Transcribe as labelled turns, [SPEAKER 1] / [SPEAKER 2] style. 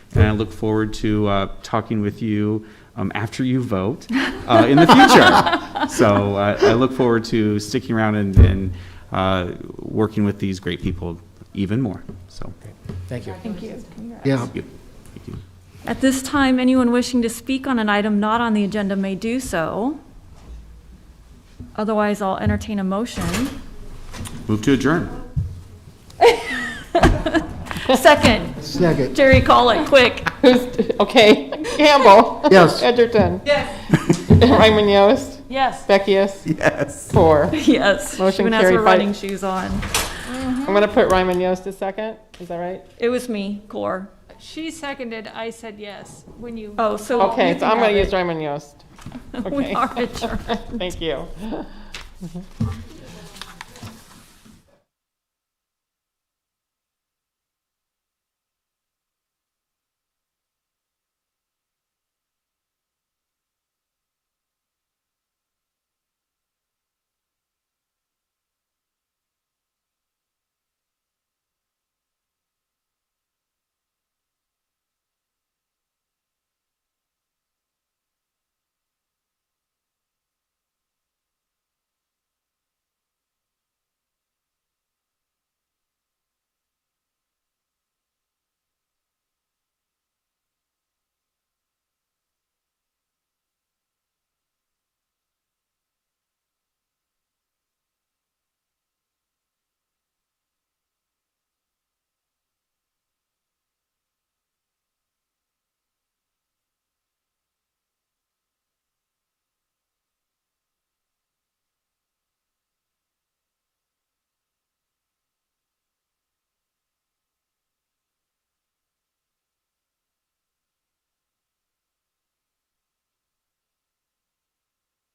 [SPEAKER 1] I look forward to uh, talking with you um, after you vote uh, in the future. So uh, I look forward to sticking around and, and uh, working with these great people even more, so.
[SPEAKER 2] Thank you.
[SPEAKER 3] Thank you. Congrats.
[SPEAKER 2] Yeah,
[SPEAKER 1] Thank you. Thank you.
[SPEAKER 4] At this time, anyone wishing to speak on an item not on the agenda may do so. Otherwise, I'll entertain a motion.
[SPEAKER 1] Move to adjourn.
[SPEAKER 4] Second,
[SPEAKER 2] second,
[SPEAKER 4] Jerry, call it quick.
[SPEAKER 5] Who's, okay, Campbell.
[SPEAKER 2] Yes.
[SPEAKER 5] Edgerton.
[SPEAKER 3] Yes.
[SPEAKER 5] Raymond Yost.
[SPEAKER 4] Yes.
[SPEAKER 5] Beckius.
[SPEAKER 1] Yes.
[SPEAKER 5] Four.
[SPEAKER 4] Yes.
[SPEAKER 5] Motion
[SPEAKER 4] Even as
[SPEAKER 5] carried,
[SPEAKER 4] we're
[SPEAKER 5] five-
[SPEAKER 4] running shoes on.
[SPEAKER 5] I'm going to put Raymond Yost a second. Is that right?
[SPEAKER 4] It was me, Core.
[SPEAKER 3] She seconded, I said yes, when you.
[SPEAKER 4] Oh, so.
[SPEAKER 5] Okay, so I'm
[SPEAKER 4] have
[SPEAKER 5] going to
[SPEAKER 4] it.
[SPEAKER 5] use Raymond Yost.
[SPEAKER 4] We
[SPEAKER 5] Okay.
[SPEAKER 4] are adjourned.
[SPEAKER 5] Thank you.